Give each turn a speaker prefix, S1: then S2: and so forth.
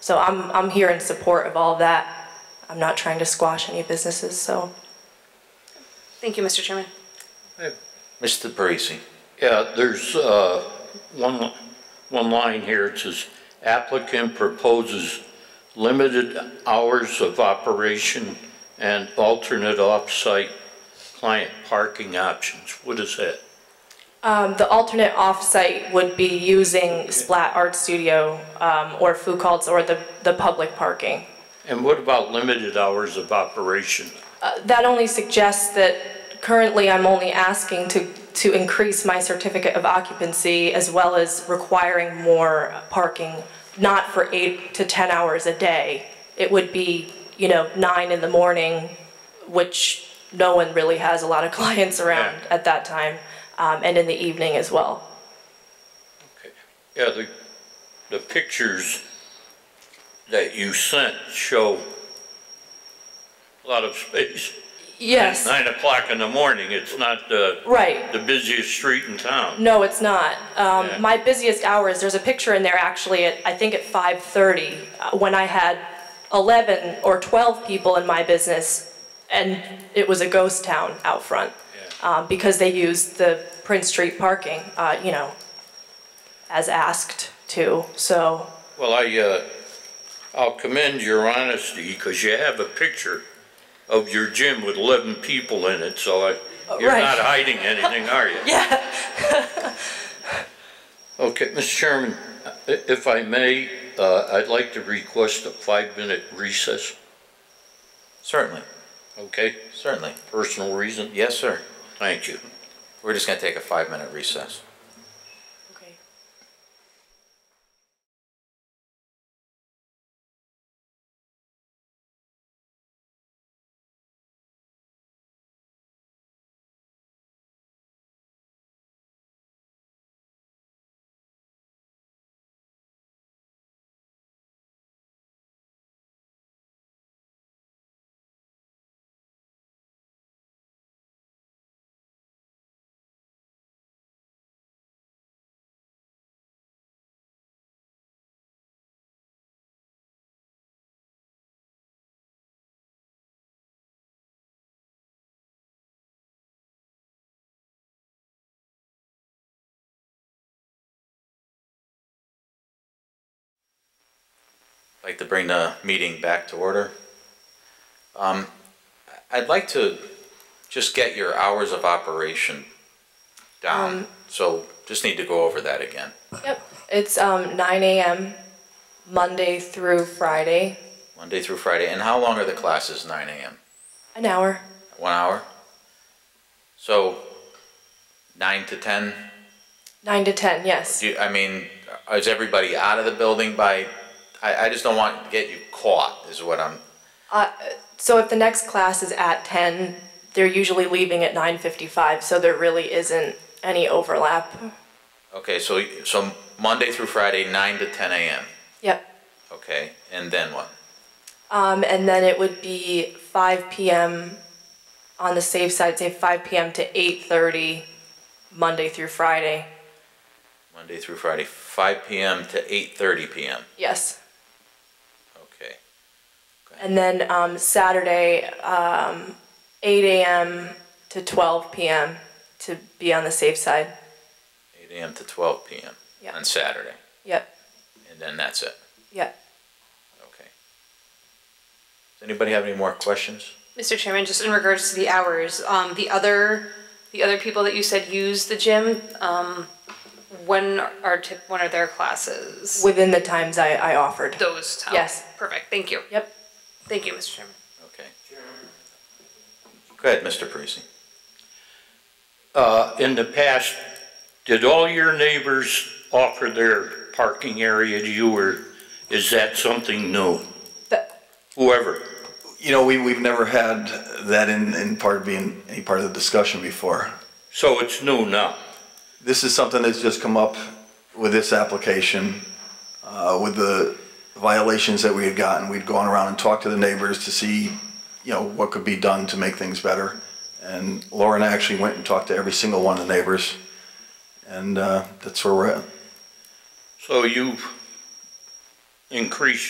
S1: So I'm, I'm here in support of all of that. I'm not trying to squash any businesses, so.
S2: Thank you, Mr. Chairman.
S3: Mr. Parisi.
S4: Yeah, there's uh, one, one line here, it says applicant proposes limited hours of operation and alternate off-site client parking options. What is that?
S1: Um, the alternate off-site would be using Splat Art Studio, um, or Food Cults, or the, the public parking.
S4: And what about limited hours of operation?
S1: That only suggests that currently I'm only asking to, to increase my certificate of occupancy as well as requiring more parking, not for eight to 10 hours a day. It would be, you know, nine in the morning, which no one really has a lot of clients around
S4: Yeah.
S1: at that time, um, and in the evening as well.
S4: Yeah, the, the pictures that you sent show a lot of space.
S1: Yes,
S4: Nine o'clock in the morning, it's not the,
S1: right.
S4: the busiest street in town.
S1: No, it's not.
S4: Yeah.
S1: Um, my busiest hours, there's a picture in there actually at, I think at 5:30, uh, when I had 11 or 12 people in my business and it was a ghost town out front. Um, because they used the Prince Street parking, uh, you know, as asked to, so,
S4: Well, I, uh, I'll commend your honesty, because you have a picture of your gym with eleven people in it, so I, you're
S1: right.
S4: not hiding anything, are you?
S1: yeah.
S4: Okay, Mr. Chairman, i- if I may, uh, I'd like to request a five-minute recess,
S3: Certainly,
S4: okay?
S3: certainly.
S4: Personal reason?
S3: Yes, sir.
S4: Thank you.
S3: We're just gonna take a five-minute recess.
S1: Okay.
S3: I'd like to bring the meeting back to order. Um, I'd like to just get your hours of operation down, so just need to go over that again.
S1: Yep, it's, um, 9 AM, Monday through Friday,
S3: Monday through Friday, and how long are the classes, nine AM?
S1: an hour.
S3: One hour? So, nine to ten?
S1: Nine to 10, yes.
S3: Do you, I mean, is everybody out of the building by, I, I just don't want to get you caught, is what I'm,
S1: Uh, So if the next class is at 10, they're usually leaving at 9:55, so there really isn't any overlap.
S3: okay, so, so Monday through Friday, nine to ten AM,
S1: Yep.
S3: okay, and then what?
S1: Um, And then it would be 5 PM on the safe side, say 5 PM to 8:30, Monday through Friday.
S3: Monday through Friday, five PM to eight thirty PM,
S1: Yes.
S3: okay.
S1: And then um, Saturday, um, 8 AM to 12 PM to be on the safe side.
S3: Eight AM to twelve PM
S1: Yeah.
S3: on Saturday,
S1: Yep,
S3: and then that's it,
S1: yep.
S3: okay. Does anybody have any more questions?
S2: Mr. Chairman, just in regards to the hours, um, the other, the other people that you said use the gym, um, when are tip, when are their classes?
S1: Within the times I I offered.
S2: Those times?
S1: Yes.
S2: Perfect, thank you.
S1: Yep.
S2: Thank you, Mr. Chairman.
S3: Okay. Go ahead, Mr. Parisi.
S4: Uh, in the past, did all your neighbors offer their parking area to you, or is that something new?
S1: That-
S4: Whoever,
S5: You know, we, we've never had that in, in part being any part of the discussion before.
S4: so it's new now.
S5: This is something that's just come up with this application, uh, with the violations that we had gotten. We'd gone around and talked to the neighbors to see, you know, what could be done to make things better. And Lauren actually went and talked to every single one of the neighbors. And, uh, that's where we're at.
S4: So you've increased